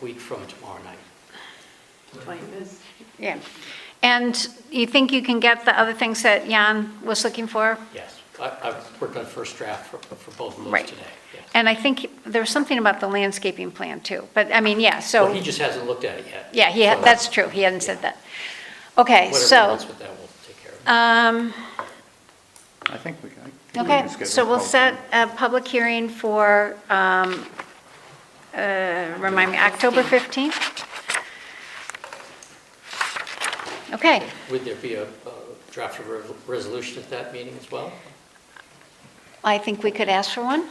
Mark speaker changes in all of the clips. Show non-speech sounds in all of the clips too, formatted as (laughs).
Speaker 1: week from tomorrow night.
Speaker 2: Yeah. And you think you can get the other things that Jan was looking for?
Speaker 1: Yes, I, I've worked on first draft for, for both of those
Speaker 2: Right.
Speaker 1: today. yes.
Speaker 2: And I think there was something about the landscaping plan too, but I mean, yeah,
Speaker 1: Well, he
Speaker 2: so,
Speaker 1: just hasn't looked at it yet.
Speaker 2: yeah, he,
Speaker 1: so
Speaker 2: had- that's true, he hadn't said that. Okay,
Speaker 1: Whatever he
Speaker 2: so,
Speaker 1: wants with that, we'll take care of it.
Speaker 2: um,
Speaker 3: I think we can. I think we
Speaker 2: okay,
Speaker 3: can schedule
Speaker 2: so
Speaker 3: a
Speaker 2: we'll
Speaker 3: public
Speaker 2: set a public hearing for, um, uh, remind me, October 15th? Okay,
Speaker 1: Would there be a a draft of re- resolution at that meeting as well?
Speaker 2: I think we could ask for one.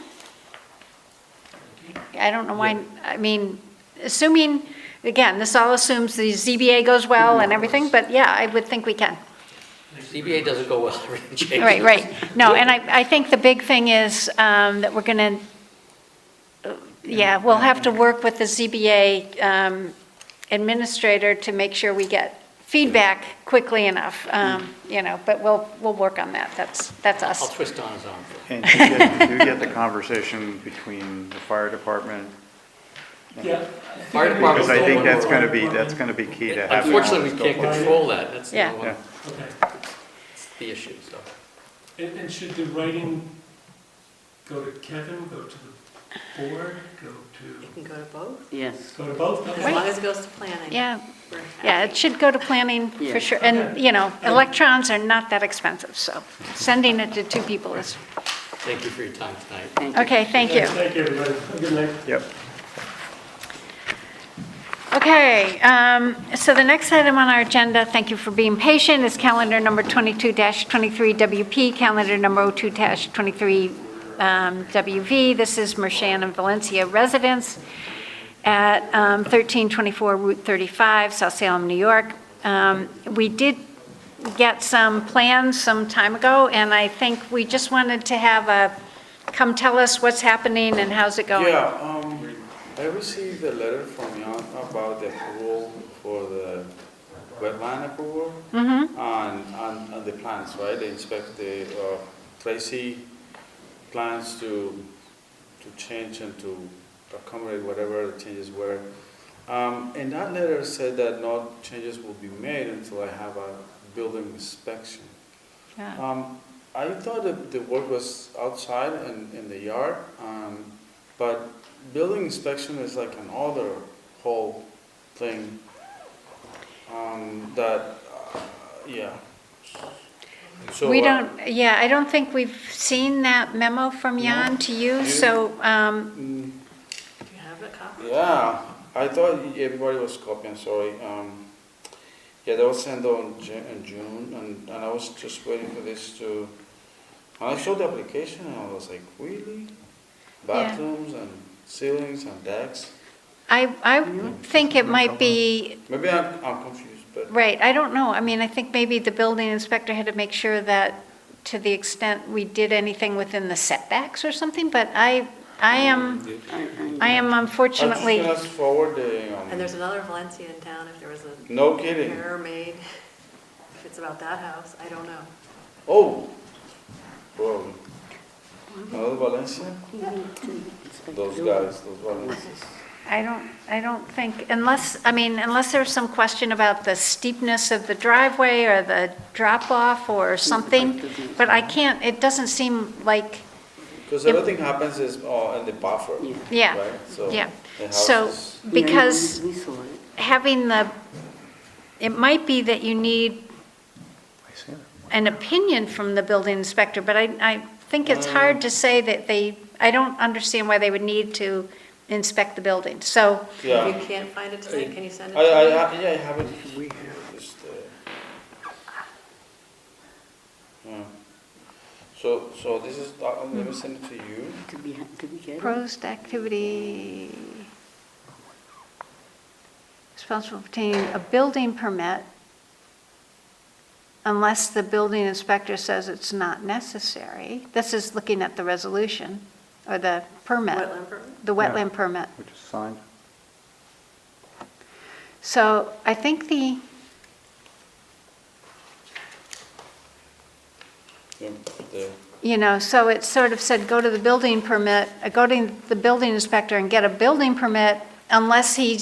Speaker 2: I don't know why, I mean, assuming, again, this all assumes the ZBA goes well and everything, but yeah, I would think we can.
Speaker 1: ZBA doesn't go well, (laughs) everything changes.
Speaker 2: Right, right. No, and I, I think the big thing is um, that we're going to, yeah, we'll have to work with the ZBA um, administrator to make sure we get feedback quickly enough, um, you know, but we'll, we'll work on that. That's, that's us.
Speaker 1: I'll twist Donna's arm. for
Speaker 3: And you get, you get the conversation between the fire department,
Speaker 1: it. Fire department
Speaker 3: because I think
Speaker 1: don't want
Speaker 3: that's going to be, that's going to be key to having.
Speaker 1: Unfortunately, we can't control that, that's the
Speaker 2: Yeah.
Speaker 1: one,
Speaker 3: Yeah,
Speaker 4: Okay,
Speaker 1: that's the issue, so.
Speaker 4: and, and should the writing go to Kevin, go to the board, go to,
Speaker 5: Can go to both,
Speaker 6: Yes.
Speaker 4: go to both?
Speaker 5: as
Speaker 4: Okay.
Speaker 5: long as it goes to planning.
Speaker 2: Yeah,
Speaker 5: We're
Speaker 2: Yeah,
Speaker 5: happy.
Speaker 2: it should go to planning for
Speaker 6: Yeah.
Speaker 2: sure. And, you know, electrons are not that expensive, so sending it to two people is,
Speaker 1: Thank you for your time tonight.
Speaker 6: Thank you.
Speaker 2: okay, thank you.
Speaker 4: Thank you, everybody, Have a good night.
Speaker 3: yep.
Speaker 2: Okay, um, so the next item on our agenda, thank you for being patient, is calendar number 22-23WP, calendar number 02-23WV. um, This is Mershon and Valencia residents at um, 1324 Route 35, South Salem, New York. Um, We did get some plans some time ago, and I think we just wanted to have a, come tell us what's happening and how's it going.
Speaker 7: Yeah, um, I received a letter from Yon about the approval for the wetland approval.
Speaker 2: Mm-hmm.
Speaker 7: On, on, on the plans, right, they inspect the, uh, Tracy plans to, to change and to accommodate whatever the changes were. Um, and that letter said that no changes will be made until I have a building inspection.
Speaker 2: Yeah.
Speaker 7: Um, I thought that the work was outside in, in the yard, um, but building inspection is like an other whole thing. Um, that, uh, yeah. So,
Speaker 2: We
Speaker 7: uh,
Speaker 2: don't, yeah, I don't think we've seen that memo from Jan to you, so, um,
Speaker 7: mm,
Speaker 5: Do you have a copy?
Speaker 7: Yeah, I thought everybody was copying, sorry. Um, yeah, that was sent on Ju- in June, and, and I was just waiting for this to, and I saw the application, and I was like, really? Bathrooms and ceilings and decks?
Speaker 2: I, I think it might be,
Speaker 7: Maybe I'm, I'm confused, but
Speaker 2: right, I don't know, I mean, I think maybe the building inspector had to make sure that to the extent we did anything within the setbacks or something, but I, I am, I am
Speaker 7: I'm just
Speaker 2: unfortunately,
Speaker 7: gonna forward the,
Speaker 5: And there's
Speaker 7: um,
Speaker 5: another Valencia in town, if there was a
Speaker 7: no kidding.
Speaker 5: error made, if it's about that house, I don't know.
Speaker 7: Oh, bro. Another Valencia? Those guys, those Valencians.
Speaker 2: I don't, I don't think, unless, I mean, unless there's some question about the steepness of the driveway or the drop-off or something, but I can't, it doesn't seem like
Speaker 7: Because everything happens is uh, in the buffer.
Speaker 6: Yeah.
Speaker 2: Yeah,
Speaker 7: right? So
Speaker 2: yeah.
Speaker 7: the house
Speaker 2: So,
Speaker 7: is-
Speaker 2: because
Speaker 6: Yeah, We we saw it.
Speaker 2: having the, it might be that you need
Speaker 3: I see that.
Speaker 2: an opinion from the building inspector, but I, I think
Speaker 7: Mm.
Speaker 2: it's hard to say that they, I don't understand why they would need to inspect the building. So,
Speaker 5: If
Speaker 7: Yeah,
Speaker 5: you can't find it tonight, can you send it
Speaker 7: I,
Speaker 5: to me?
Speaker 7: I, I- yeah, I have it. We just, uh, yeah. Hmm. So, so this is, uh, let me send it to you.
Speaker 6: Did we, ha- did we get it?
Speaker 2: proposed activity responsible for obtaining a building permit unless the building inspector says it's not necessary. This is looking at the resolution or the permit.
Speaker 5: Wetland permit?
Speaker 2: The wetland permit.
Speaker 3: Which is signed.
Speaker 2: So I think the,
Speaker 7: Yeah, the-
Speaker 2: you know, so it sort of said, go to the building permit, uh, go to the building inspector and get a building permit unless he